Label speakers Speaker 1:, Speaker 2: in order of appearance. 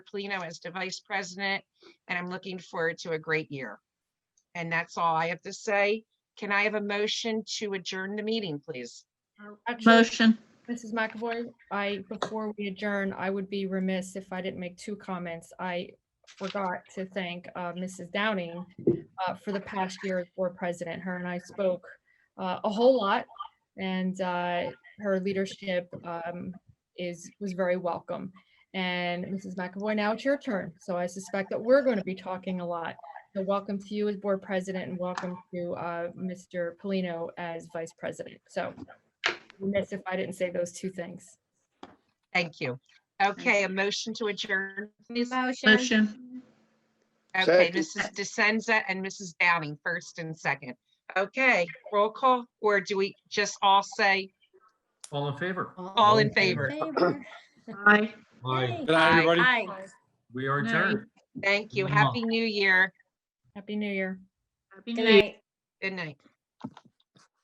Speaker 1: Plino as the vice president, and I'm looking forward to a great year. And that's all I have to say. Can I have a motion to adjourn the meeting, please?
Speaker 2: Actually,
Speaker 3: Motion.
Speaker 2: Mrs. McAvoy, I, before we adjourn, I would be remiss if I didn't make two comments. I forgot to thank uh, Mrs. Downing uh, for the past year as board president. Her and I spoke uh, a whole lot, and uh, her leadership um, is, was very welcome. And Mrs. McAvoy, now it's your turn, so I suspect that we're going to be talking a lot. So welcome to you as board president, and welcome to uh, Mr. Polino as vice president. So remiss if I didn't say those two things.
Speaker 1: Thank you. Okay, a motion to adjourn, please.
Speaker 4: Motion.
Speaker 3: Motion.
Speaker 1: Okay,
Speaker 5: Second.
Speaker 1: Mrs. DeSenza and Mrs. Downing, first and second. Okay, roll call, or do we just all say
Speaker 6: All in favor?
Speaker 1: all in favor?
Speaker 4: Favor.
Speaker 3: Aye.
Speaker 6: Aye,
Speaker 5: Good night,
Speaker 1: Aye.
Speaker 5: everybody.
Speaker 4: Aye.
Speaker 6: we are
Speaker 3: Aye.
Speaker 6: adjourned.
Speaker 1: Thank you.
Speaker 6: Mwah.
Speaker 1: Happy New Year.
Speaker 2: Happy New Year.
Speaker 3: Happy
Speaker 4: Good
Speaker 3: New Year.
Speaker 4: night.
Speaker 1: Good night.